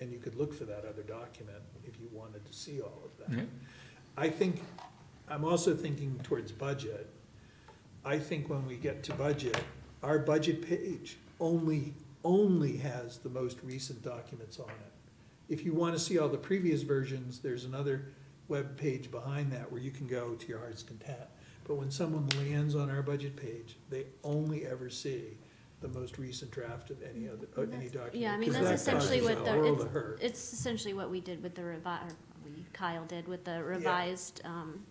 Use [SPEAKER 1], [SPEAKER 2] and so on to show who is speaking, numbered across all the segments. [SPEAKER 1] and you could look for that other document if you wanted to see all of
[SPEAKER 2] Yeah.
[SPEAKER 1] that. I think, I'm also thinking towards budget. I think when we get to budget, our budget page only, only has the most recent documents on it. If you wanna see all the previous versions, there's another web page behind that where you can go to your heart's content. But when someone lands on our budget page, they only ever see the most recent draft of any other, of any document.
[SPEAKER 3] Yeah, I mean,
[SPEAKER 1] 'cause
[SPEAKER 3] that's
[SPEAKER 1] that
[SPEAKER 3] essentially
[SPEAKER 1] causes
[SPEAKER 3] what
[SPEAKER 1] a
[SPEAKER 3] the-
[SPEAKER 1] world of hurt.
[SPEAKER 3] It's essentially what we did with the revi, or we, Kyle did with the revised, um,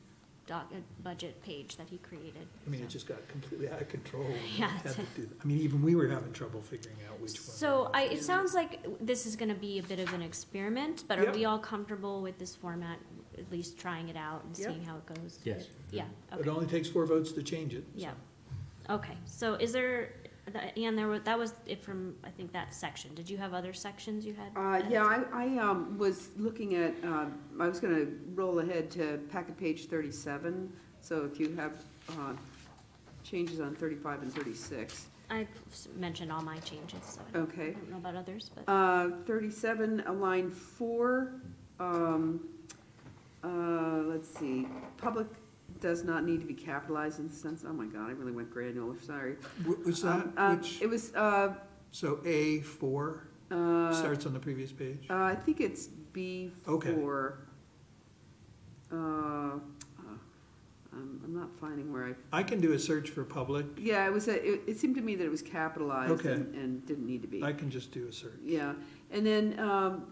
[SPEAKER 3] doc, uh, budget page that he created.
[SPEAKER 1] I mean, it
[SPEAKER 3] so.
[SPEAKER 1] just got completely out of control. when we
[SPEAKER 3] Yeah,
[SPEAKER 1] had
[SPEAKER 3] it's-
[SPEAKER 1] to do that. I mean, even we were having trouble figuring out which one.
[SPEAKER 3] So I,
[SPEAKER 1] to
[SPEAKER 3] it
[SPEAKER 1] do.
[SPEAKER 3] sounds like this is gonna be a bit of an experiment, but are
[SPEAKER 1] Yep.
[SPEAKER 3] we all comfortable with this format, at least trying it out and
[SPEAKER 1] Yep.
[SPEAKER 3] seeing how it goes?
[SPEAKER 2] Yes.
[SPEAKER 3] Yeah,
[SPEAKER 1] It
[SPEAKER 3] okay,
[SPEAKER 1] only takes four votes to change it. so.
[SPEAKER 3] yeah. Okay, so is there, the- and there was, that was it from, I think, that section. Did you have other sections you had?
[SPEAKER 4] Uh,
[SPEAKER 3] added?
[SPEAKER 4] yeah, I, I, um, was looking at, um, I was gonna roll ahead to packet page thirty-seven, so if you have, uh, changes on thirty-five and thirty-six.
[SPEAKER 3] I s- mentioned all my changes, so I don't- I
[SPEAKER 4] Okay,
[SPEAKER 3] don't know about others, but.
[SPEAKER 4] uh, thirty-seven, uh, line four, um, uh, let's see, public does not need to be capitalized in the sense, oh my god, I really went granular, sorry.
[SPEAKER 1] Wh- Was
[SPEAKER 4] Um, uh,
[SPEAKER 1] that, which,
[SPEAKER 4] It was, uh,
[SPEAKER 1] so A four
[SPEAKER 4] uh,
[SPEAKER 1] starts on the previous page?
[SPEAKER 4] Uh, I think it's B
[SPEAKER 1] Okay.
[SPEAKER 4] four. Uh, uh, I'm, I'm not finding where I,
[SPEAKER 1] I can do a search for public.
[SPEAKER 4] yeah, it was, a- it, it seemed to me that it was capitalized
[SPEAKER 1] Okay.
[SPEAKER 4] and, and didn't need to be.
[SPEAKER 1] I can just do a search.
[SPEAKER 4] Yeah, and then, um,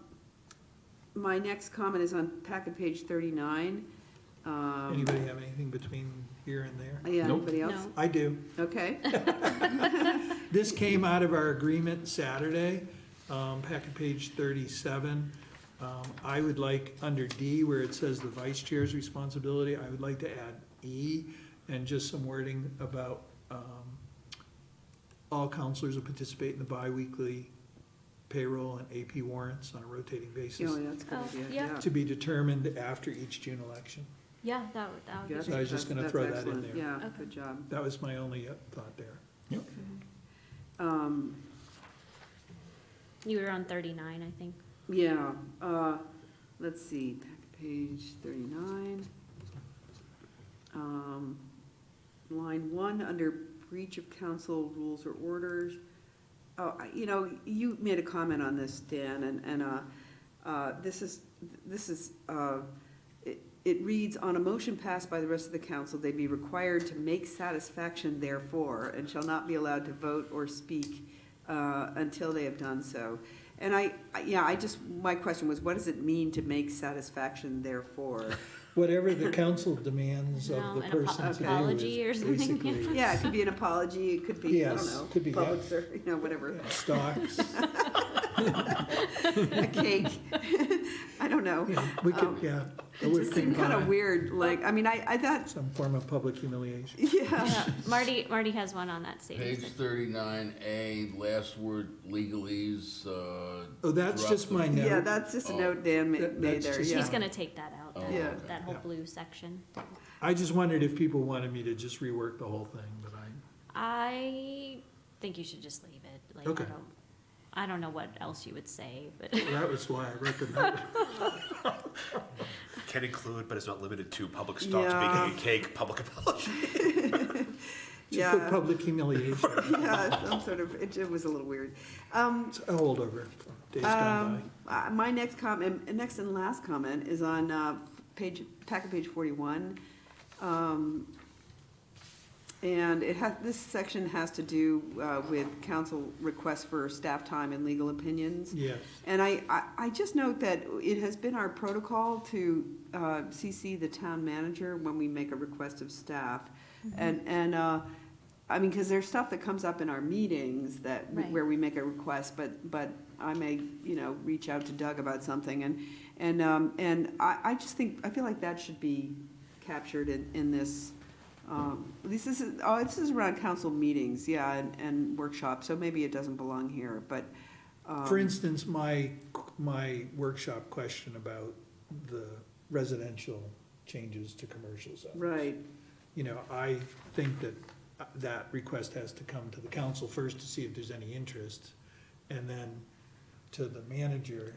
[SPEAKER 4] my next comment is on packet page thirty-nine. Um,
[SPEAKER 1] Anybody have anything between here and there?
[SPEAKER 4] Yeah,
[SPEAKER 2] Nope.
[SPEAKER 4] anybody else?
[SPEAKER 3] No.
[SPEAKER 1] I do.
[SPEAKER 4] Okay,
[SPEAKER 1] This came out of our agreement Saturday, um, packet page thirty-seven. Um, I would like, under D, where it says the vice chair's responsibility, I would like to add E, and just some wording about, um, all counselors will participate in the biweekly payroll and AP warrants on a rotating
[SPEAKER 4] oh,
[SPEAKER 1] basis,
[SPEAKER 4] yeah, that's a good
[SPEAKER 3] Oh,
[SPEAKER 4] idea,
[SPEAKER 3] yeah.
[SPEAKER 4] yeah.
[SPEAKER 1] to be determined after each June election.
[SPEAKER 3] Yeah, that would, that would be
[SPEAKER 4] Yeah, I
[SPEAKER 3] great.
[SPEAKER 1] So I was just
[SPEAKER 4] think
[SPEAKER 1] gonna
[SPEAKER 4] that's-
[SPEAKER 1] throw
[SPEAKER 4] that's
[SPEAKER 1] that in
[SPEAKER 4] excellent.
[SPEAKER 1] there.
[SPEAKER 4] Yeah,
[SPEAKER 3] Okay.
[SPEAKER 4] good job.
[SPEAKER 1] That was my only uh, thought there.
[SPEAKER 4] Um,
[SPEAKER 3] You were on thirty-nine, I think.
[SPEAKER 4] Yeah, uh, let's see, back to page thirty-nine. Um, line one, under breach of council rules or orders. Oh, I- you know, you made a comment on this, Dan, and, and, uh, uh, this is, this is, uh, it, it reads, on a motion passed by the rest of the council, they be required to make satisfaction therefore, and shall not be allowed to vote or speak, uh, until they have done so. And I, I- yeah, I just, my question was, what does it mean to make satisfaction therefore?
[SPEAKER 1] Whatever the council demands of
[SPEAKER 3] No,
[SPEAKER 1] the
[SPEAKER 3] an apo-
[SPEAKER 1] person to do
[SPEAKER 3] apology or
[SPEAKER 1] is
[SPEAKER 3] something.
[SPEAKER 1] basically
[SPEAKER 4] Yeah, it could be an apology, it could be, I don't
[SPEAKER 1] Yes,
[SPEAKER 4] know,
[SPEAKER 1] could be, yeah.
[SPEAKER 4] public service, you know, whatever,
[SPEAKER 1] Stocks.
[SPEAKER 4] a cake, I don't know.
[SPEAKER 1] Yeah, we could,
[SPEAKER 4] Um,
[SPEAKER 1] yeah. I
[SPEAKER 4] It
[SPEAKER 1] would
[SPEAKER 4] just seemed kind of
[SPEAKER 1] combine
[SPEAKER 4] weird, like, I mean, I, I thought,
[SPEAKER 1] Some form of public humiliation.
[SPEAKER 4] yeah,
[SPEAKER 3] Yeah, Marty, Marty has one on that savings.
[SPEAKER 5] Page thirty-nine A, last word legalese, uh.
[SPEAKER 1] Oh, that's just my
[SPEAKER 5] corrupt-
[SPEAKER 1] note.
[SPEAKER 4] yeah, that's just a
[SPEAKER 5] Oh.
[SPEAKER 4] note Dan ma-
[SPEAKER 1] That-
[SPEAKER 4] made
[SPEAKER 1] that's
[SPEAKER 4] there,
[SPEAKER 1] just-
[SPEAKER 4] yeah.
[SPEAKER 3] She's gonna take that out,
[SPEAKER 5] Oh,
[SPEAKER 3] that-
[SPEAKER 4] Yeah.
[SPEAKER 3] that whole
[SPEAKER 1] Yeah.
[SPEAKER 3] blue section.
[SPEAKER 1] I just wondered if people wanted me to just rework the whole thing, but I,
[SPEAKER 3] I think you should just leave it. Like, I
[SPEAKER 1] Okay.
[SPEAKER 3] don't, I don't know what else you would say, but
[SPEAKER 1] that was why I wrote the note.
[SPEAKER 6] Can include, but is not limited to public stocks,
[SPEAKER 4] Yeah.
[SPEAKER 6] baking a cake, public apology.
[SPEAKER 1] Just put
[SPEAKER 4] Yeah.
[SPEAKER 1] public humiliation.
[SPEAKER 4] Yeah, some sort of, it, it was a little weird. Um,
[SPEAKER 1] It's a holdover from days gone
[SPEAKER 4] Um, uh, my next comment, next and last comment is on, uh, page, packet page forty-one. Um, and it has, this section has to do, uh, with council requests for staff time and legal opinions.
[SPEAKER 1] by. Yes.
[SPEAKER 4] And I, I, I just note that it has been our protocol to uh, CC the town manager when we make a request of staff. And, and, uh, I mean, because there's stuff that comes up in our meetings that,
[SPEAKER 3] Right.
[SPEAKER 4] where we make a request, but, but I may, you know, reach out to Doug about something. And, and, um, and I, I just think, I feel like that should be captured in, in this, um, at least this is, oh, this is around council meetings, yeah, and, and workshops, so maybe it doesn't belong here, but. um,
[SPEAKER 1] For instance, my, my workshop question about the residential changes to commercial zones.
[SPEAKER 4] Right,
[SPEAKER 1] you know, I think that uh, that request has to come to the council first to see if there's any interest, and then to the manager